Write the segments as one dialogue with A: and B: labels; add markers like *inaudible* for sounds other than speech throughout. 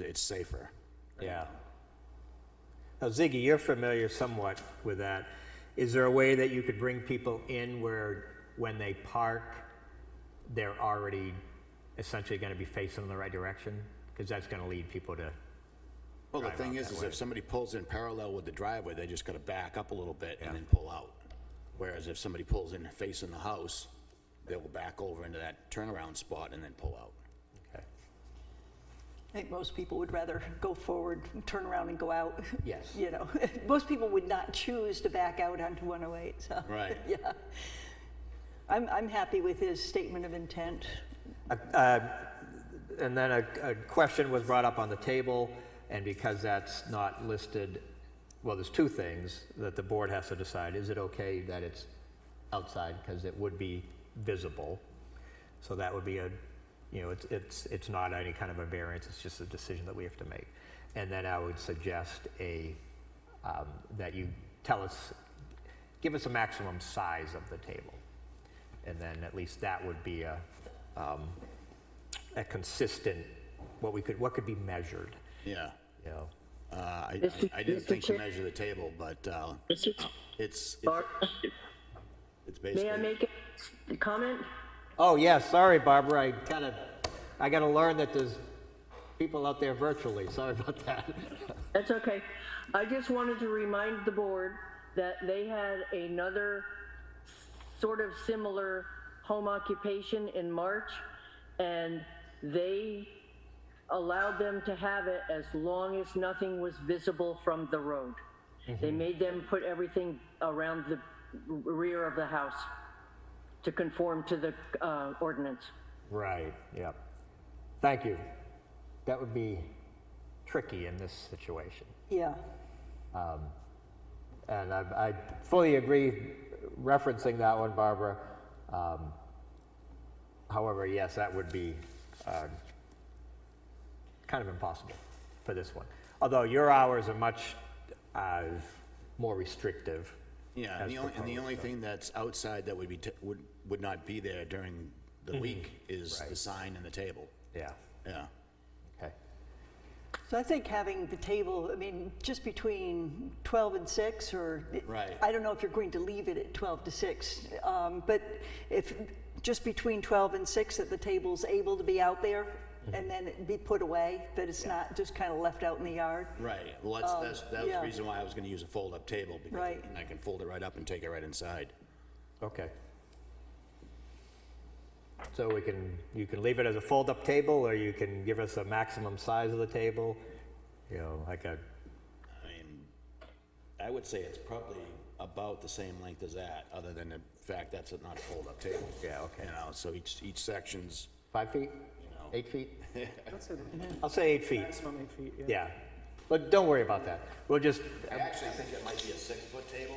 A: it's safer. Yeah.
B: Now, Ziggy, you're familiar somewhat with that. Is there a way that you could bring people in where, when they park, they're already essentially going to be facing in the right direction? Because that's going to lead people to,
A: Well, the
B: Drive
A: thing
B: out
A: is,
B: that
A: is
B: way.
A: if somebody pulls in parallel with the driveway, they just gotta back up a little bit and then pull out. Whereas if somebody pulls in facing the house, they will back over into that turnaround spot and then pull out.
B: okay.
C: I think most people would rather go forward, turn around and go out. *laughs*
B: Yes.
C: You know, most people would not choose to back out onto 108, so.
D: *laughs*
A: Right.
C: Yeah. I'm, I'm happy with his statement of intent.
B: And then a, a question was brought up on the table, and because that's not listed, well, there's two things that the board has to decide. Is it okay that it's outside, because it would be visible? So that would be a, you know, it's, it's, it's not any kind of a variance, it's just a decision that we have to make. And then I would suggest a, um, that you tell us, give us a maximum size of the table. And then at least that would be a, a consistent, what we could, what could be measured,
A: Yeah.
B: you know?
A: Uh, I,
D: Mr.
A: I I didn't
D: Mr.
A: think to
D: Chair-
A: measure the table, but, uh,
D: Mr.
A: it's, it's-
D: Bar-
A: it's
D: May I
A: basically,
D: make a comment?
B: Oh, yeah, sorry, Barbara, I kind of, I got to learn that there's people out there virtually, sorry about that.
D: That's okay. I just wanted to remind the board that they had another sort of similar home occupation in March, and they allowed them to have it as long as nothing was visible from the road. They made them put everything around the rear of the house to conform to the uh, ordinance.
B: Right, yeah. Thank you. That would be tricky in this situation.
C: Yeah.
B: And I, I fully agree referencing that one, Barbara. Um, However, yes, that would be um, kind of impossible for this one. Although your hours are much uh, more restrictive.
A: yeah,
B: as
A: and the only, and the
B: proposed,
A: only
B: so.
A: thing that's outside that would be, t- would, would not be there during the week is the
B: Mm-hmm. Right.
A: sign and the table.
B: Yeah,
A: Yeah.
B: okay.
C: So I think having the table, I mean, just between 12 and 6 or.
A: Right.
C: I don't know if you're going to leave it at 12 to 6, um, but if, just between 12 and 6, that the table's able to be out there
A: Mm-hmm.
C: and then it be put away, that it's not just kind of left out in the yard.
A: Right, well, that's, that's, that was the
C: Um, yeah.
A: reason why I was gonna use a fold-up table, because
C: Right.
A: I can fold it right up and take it right inside.
B: Okay. So we can, you can leave it as a fold-up table, or you can give us a maximum size of the table, you know, like a,
A: I mean, I would say it's probably about the same length as that, other than the fact that's a not a fold-up table.
B: Yeah, okay.
A: You know, so each, each section's,
B: five feet?
A: No.
B: Eight feet?
E: That's it.
B: *laughs* I'll say eight feet.
E: Maximum eight feet, yeah.
B: Yeah, but don't worry about that. We'll just,
A: I actually think it might be a six-foot table.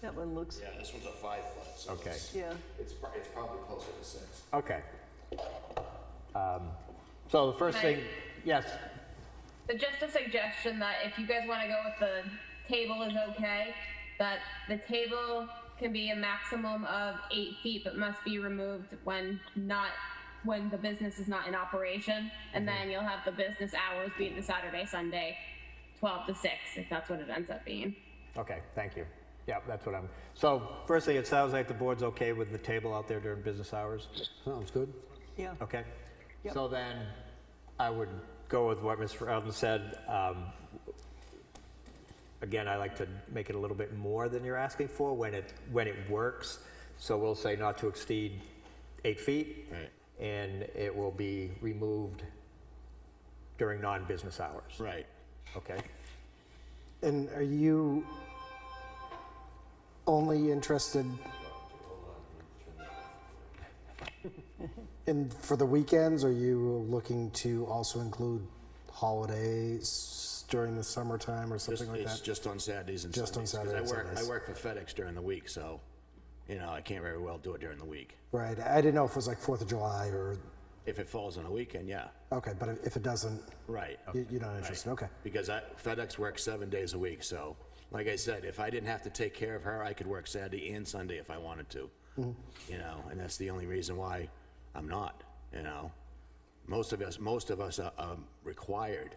C: That one looks,
A: Yeah, this one's a five-foot, so
B: Okay.
A: it's,
C: yeah.
A: it's prob- it's probably closer to six.
B: okay. Um, So the first
F: Can I-
B: thing, yes,
F: So just a suggestion that if you guys want to go with the table is okay, that the table can be a maximum of eight feet, but must be removed when not, when the business is not in operation. And then you'll have the business hours be the Saturday, Sunday, twelve to six, if that's what it ends up being.
B: okay, thank you. Yeah, that's what I'm, so firstly, it sounds like the board's okay with the table out there during business hours?
G: Sounds good.
C: Yeah.
B: Okay. So then, I would go with what Mr. Eldon said. Um, Again, I like to make it a little bit more than you're asking for when it, when it works. So we'll say not to exceed eight feet.
A: Right.
B: And it will be removed during non-business hours.
A: Right,
B: Okay?
E: And are you only interested in, for the weekends, are you looking to also include holidays during the summertime or
A: just,
E: something like
A: it's
E: that?
A: just on Saturdays and
E: Just on
A: Sundays, 'cause I
E: Saturday and
A: work, I
E: Sundays.
A: work for FedEx during the week, so, you know, I can't very well do it during the week.
E: Right, I didn't know if it was like Fourth of July or,
A: If it falls on a weekend, yeah,
E: okay, but if it doesn't,
A: right.
E: you- you're not interested, okay.
A: because I, FedEx works seven days a week, so, like I said, if I didn't have to take care of her, I could work Saturday and Sunday if I
E: Mm-hmm.
A: wanted to. You know, and that's the only reason why I'm not, you know? Most of us, most of us are um, required